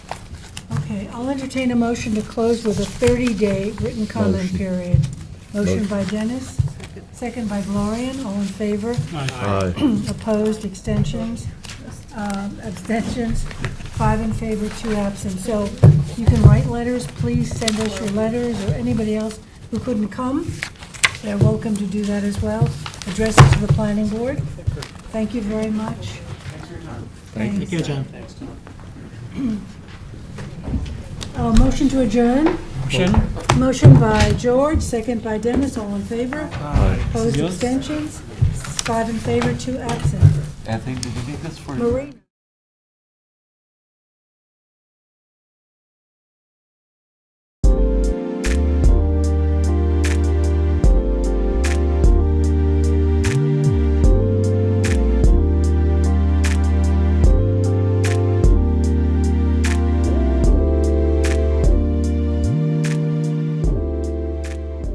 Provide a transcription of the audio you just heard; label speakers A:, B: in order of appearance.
A: Okay, I'll entertain a motion to close with a 30-day written comment
B: Motion.
A: period. Motion
B: Motion.
A: by Dennis, second by Gloria, all in favor,
B: Aye.
A: opposed, extensions, um, abstentions, five in favor, two absent. So you can write letters, please send us your letters, or anybody else who couldn't come, they're welcome to do that as well. Address it to the planning board. Thank you very much. Thanks.
C: Thank you, John.
A: Uh, Motion to adjourn.
C: Motion?
A: Motion by George, second by Dennis, all in favor?
B: Aye.
A: Opposed,
C: Yes.
A: abstentions? Five in favor, two absent.
D: Anthony, did you get this for?
A: Marie?